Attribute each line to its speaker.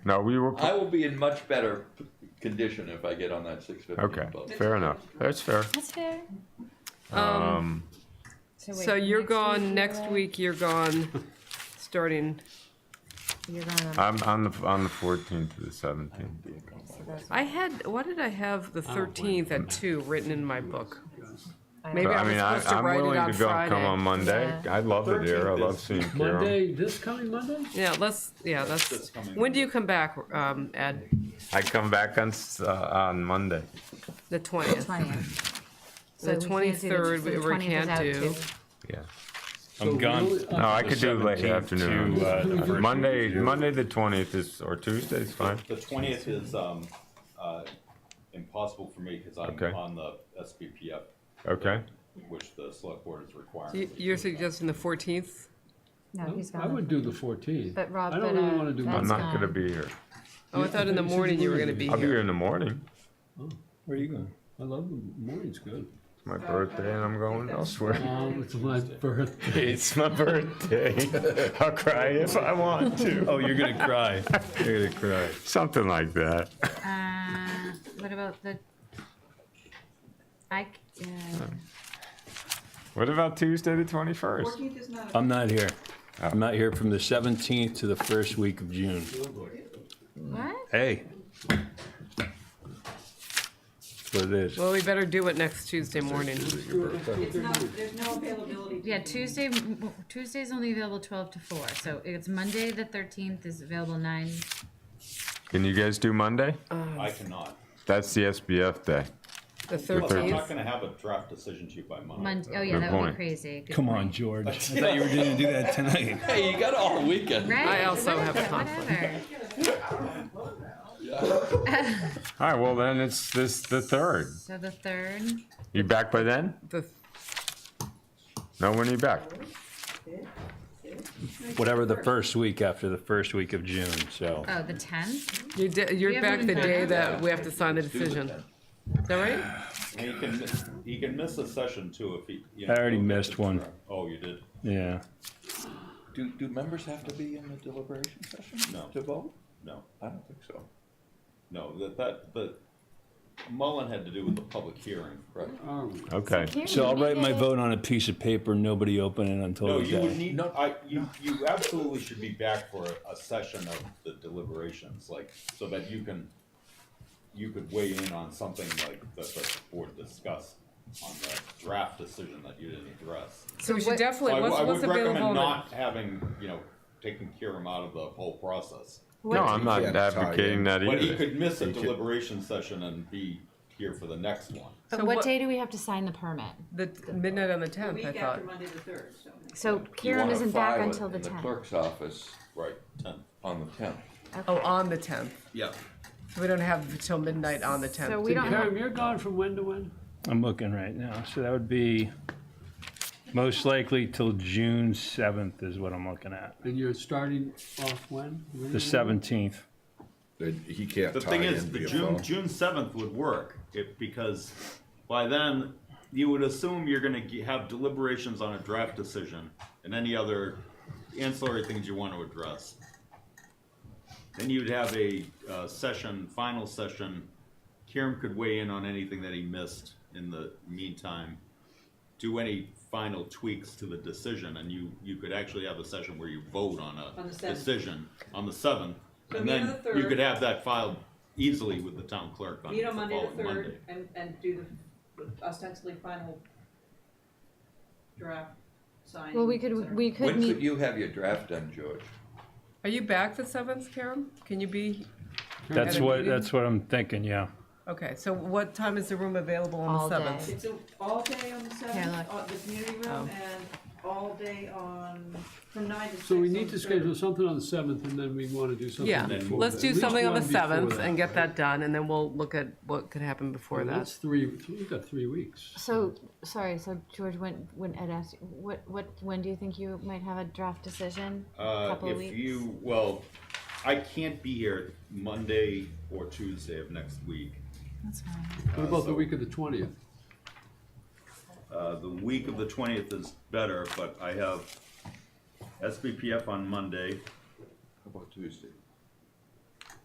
Speaker 1: No, we were,
Speaker 2: I will be in much better condition if I get on that six fifteen
Speaker 1: okay, fair enough. That's fair.
Speaker 3: That's fair.
Speaker 1: Um,
Speaker 3: wait,
Speaker 4: So you're
Speaker 3: next
Speaker 4: gone,
Speaker 3: you're
Speaker 4: next
Speaker 3: away?
Speaker 4: week you're gone, starting,
Speaker 3: You're gone on.
Speaker 1: I'm on the, on the 14th to the 17th.
Speaker 4: I had, why did I have
Speaker 1: Oh,
Speaker 4: the thirteenth at two written in my book?
Speaker 3: I
Speaker 4: Maybe
Speaker 1: But,
Speaker 4: I
Speaker 1: I mean,
Speaker 4: was
Speaker 1: I,
Speaker 4: supposed to
Speaker 1: I'm
Speaker 4: write it
Speaker 1: willing
Speaker 4: on
Speaker 1: to go, come on
Speaker 4: Friday.
Speaker 1: Monday.
Speaker 3: Yeah.
Speaker 1: I love it here. I
Speaker 2: 13th
Speaker 1: love
Speaker 2: is
Speaker 1: seeing Kira.
Speaker 5: Monday, this coming Monday?
Speaker 4: Yeah, let's, yeah,
Speaker 2: that's
Speaker 4: that's,
Speaker 2: coming.
Speaker 4: when do you come back, um, Ed?
Speaker 1: I come back on, s- uh, on Monday.
Speaker 4: The twentieth?
Speaker 3: Twentieth.
Speaker 4: The 23rd, we- we can't do.
Speaker 1: Yeah.
Speaker 5: So
Speaker 6: I'm gone.
Speaker 5: really, uh,
Speaker 1: No, I could do late
Speaker 6: 17th
Speaker 1: afternoon.
Speaker 6: to, uh, the first
Speaker 1: Monday, Monday the 20th is, or Tuesday's fine.
Speaker 7: The twentieth is, um, uh, impossible for me, cause I'm
Speaker 1: Okay.
Speaker 7: on the SBPF,
Speaker 1: Okay.
Speaker 7: which the select board is requiring. me to
Speaker 4: You're
Speaker 7: do.
Speaker 4: suggesting the fourteenth?
Speaker 3: No, he's
Speaker 5: I would
Speaker 3: gone.
Speaker 5: do the fourteenth.
Speaker 3: But Rob,
Speaker 5: I
Speaker 3: but,
Speaker 5: don't really
Speaker 3: uh,
Speaker 5: wanna do.
Speaker 3: that's
Speaker 1: I'm
Speaker 5: Monday.
Speaker 1: not gonna
Speaker 3: fine.
Speaker 1: be here.
Speaker 4: Oh, I thought in the morning you were gonna be
Speaker 1: I'll be
Speaker 4: here.
Speaker 1: here in the morning.
Speaker 6: Where are you going?
Speaker 5: I love them, morning's good.
Speaker 1: It's my birthday and I'm going elsewhere.
Speaker 5: Um, it's my birthday.
Speaker 1: It's my birthday. I'll cry if I want to.
Speaker 6: Oh, you're gonna cry. You're gonna cry.
Speaker 1: Something like that.
Speaker 3: Uh, what about the? I, c- uh,
Speaker 1: What about Tuesday the 21st?
Speaker 8: Fourteenth is not,
Speaker 6: I'm not here. I'm not here from the 17th to the first week of June.
Speaker 3: what?
Speaker 6: Hey. That's what it is.
Speaker 4: Well, we better do it next Tuesday morning.
Speaker 8: it's not, there's no availability.
Speaker 3: Yeah, Tuesday, m- Tuesday's only available twelve to four, so it's Monday, the thirteenth is available nine.
Speaker 1: Can you guys do Monday?
Speaker 7: I cannot.
Speaker 1: That's the SBF day.
Speaker 4: The
Speaker 7: Look, I'm not
Speaker 4: thirteenth?
Speaker 7: gonna have a draft decision to you by Monday.
Speaker 3: Monday, oh yeah,
Speaker 1: Good
Speaker 3: that would be
Speaker 1: point.
Speaker 3: crazy. Good
Speaker 6: Come
Speaker 3: point.
Speaker 6: on, George. I thought you were gonna do that tonight.
Speaker 2: Hey, you got all weekend.
Speaker 3: Right?
Speaker 4: I also have a
Speaker 3: whatever,
Speaker 4: conflict.
Speaker 3: whatever.
Speaker 1: All right, well then it's this, the third.
Speaker 3: So the third,
Speaker 1: You back by then?
Speaker 4: The,
Speaker 1: No, when are you back?
Speaker 6: Whatever the first week after the first week of June, so.
Speaker 3: oh, the tenth,
Speaker 4: you're, de-
Speaker 3: We
Speaker 4: you're
Speaker 3: haven't
Speaker 4: back the
Speaker 3: even
Speaker 4: day
Speaker 3: done
Speaker 4: that we have to sign the
Speaker 2: Let's do it
Speaker 4: decision.
Speaker 2: then.
Speaker 4: Is that right?
Speaker 7: And He can, miss- he can miss a session too if he, you know.
Speaker 6: I already
Speaker 7: he'll get
Speaker 6: missed
Speaker 7: the
Speaker 6: one.
Speaker 7: draft. Oh, you did?
Speaker 6: Yeah.
Speaker 2: Do, do members have to be in the deliberation session?
Speaker 7: No.
Speaker 2: To vote?
Speaker 7: No,
Speaker 2: I don't think so.
Speaker 7: no, that, that, the, Mullen had to do with the public hearing.
Speaker 2: Right.
Speaker 5: Um,
Speaker 1: Okay.
Speaker 6: So I'll write my vote on a piece of paper, nobody open it
Speaker 7: No,
Speaker 6: until the
Speaker 7: you would
Speaker 6: day.
Speaker 7: need, I, you, you absolutely should be back for a- a session of the deliberations, like, so that you can, you could weigh in on something like that the board discussed on the draft decision that you didn't address.
Speaker 4: So we should
Speaker 3: what-
Speaker 7: So I
Speaker 4: definitely,
Speaker 7: w-
Speaker 4: what's,
Speaker 7: I
Speaker 4: what's
Speaker 7: would recommend
Speaker 4: available?
Speaker 7: not having, you know, taking Kiram out of the whole process.
Speaker 1: No, I'm not
Speaker 9: Yeah, sorry,
Speaker 1: advocating that
Speaker 7: But he
Speaker 1: either.
Speaker 7: could miss a deliberation session and be here for the next one.
Speaker 4: So
Speaker 3: but what
Speaker 4: what-
Speaker 3: day do we have to sign the permit?
Speaker 4: The midnight on the
Speaker 8: The
Speaker 4: tenth, I thought.
Speaker 8: week after Monday the third, so.
Speaker 3: So
Speaker 2: You
Speaker 3: Karen
Speaker 2: wanna
Speaker 3: isn't back
Speaker 2: file it
Speaker 3: until the
Speaker 2: In the
Speaker 3: tenth.
Speaker 2: clerk's office
Speaker 7: Right, ten.
Speaker 2: on the tenth.
Speaker 4: Oh, on the tenth.
Speaker 7: Yeah.
Speaker 4: So we don't have till midnight on the
Speaker 3: So
Speaker 4: tenth.
Speaker 3: we don't have,
Speaker 5: Karen, you're gone from when to when?
Speaker 6: I'm looking right now, so that would be most likely till June 7th is what I'm looking at.
Speaker 5: And you're starting off when?
Speaker 6: The 17th.
Speaker 9: That he can't
Speaker 7: The
Speaker 9: tie
Speaker 7: thing
Speaker 9: in
Speaker 7: is, the
Speaker 9: via
Speaker 7: June
Speaker 9: phone.
Speaker 7: June seventh would work if because by then you would assume you're going to have deliberations on a draft decision and any other ancillary things you want to address. Then you'd have a uh, session, final session. Kieran could weigh in on anything that he missed in the meantime. Do any final tweaks to the decision, and you you could actually have a session where you vote on a
Speaker 8: On the 7th.
Speaker 7: decision on the seventh,
Speaker 8: So
Speaker 7: and
Speaker 8: meet on
Speaker 7: then
Speaker 8: the
Speaker 7: you
Speaker 8: third.
Speaker 7: could have that filed easily with the town clerk on
Speaker 8: Meet
Speaker 7: the
Speaker 8: on Monday the
Speaker 7: following Monday.
Speaker 8: third and, and do the ostensibly final draft sign.
Speaker 3: well, we could, we could
Speaker 2: When could
Speaker 3: meet,
Speaker 2: you have your draft done, George?
Speaker 4: Are you back the seventh, Karen? Can you be,
Speaker 6: That's
Speaker 4: At a
Speaker 6: what,
Speaker 4: meeting?
Speaker 6: that's what I'm thinking, yeah.
Speaker 4: okay, so what time is the room available on
Speaker 3: All
Speaker 4: the
Speaker 3: day.
Speaker 4: seventh?
Speaker 8: It's a- all day on the
Speaker 3: Here,
Speaker 8: seventh,
Speaker 3: look.
Speaker 8: uh, the community
Speaker 4: Oh.
Speaker 8: room, and all day on, from nine to six.
Speaker 5: So we
Speaker 8: on
Speaker 5: need to
Speaker 8: the third.
Speaker 5: schedule something on the seventh and then we wanna do something.
Speaker 4: Yeah,
Speaker 5: before
Speaker 4: let's
Speaker 5: that.
Speaker 4: do
Speaker 5: At least
Speaker 4: something on the
Speaker 5: one before
Speaker 4: seventh
Speaker 5: that.
Speaker 4: and get that done, and then we'll look at what could happen before
Speaker 5: Well,
Speaker 4: that.
Speaker 5: That's three, we've got three weeks.
Speaker 3: so, sorry, so George, when, when Ed asked, you- what, what, when do you think you might have a draft decision?
Speaker 7: Uh,
Speaker 3: Couple of
Speaker 7: if
Speaker 3: weeks?
Speaker 7: you well, I can't be here Monday or Tuesday of next week.
Speaker 3: That's fine.
Speaker 5: What about the week of the twentieth?
Speaker 7: Uh, the week of the twentieth is better, but I have SBPF on Monday.
Speaker 2: How about Tuesday?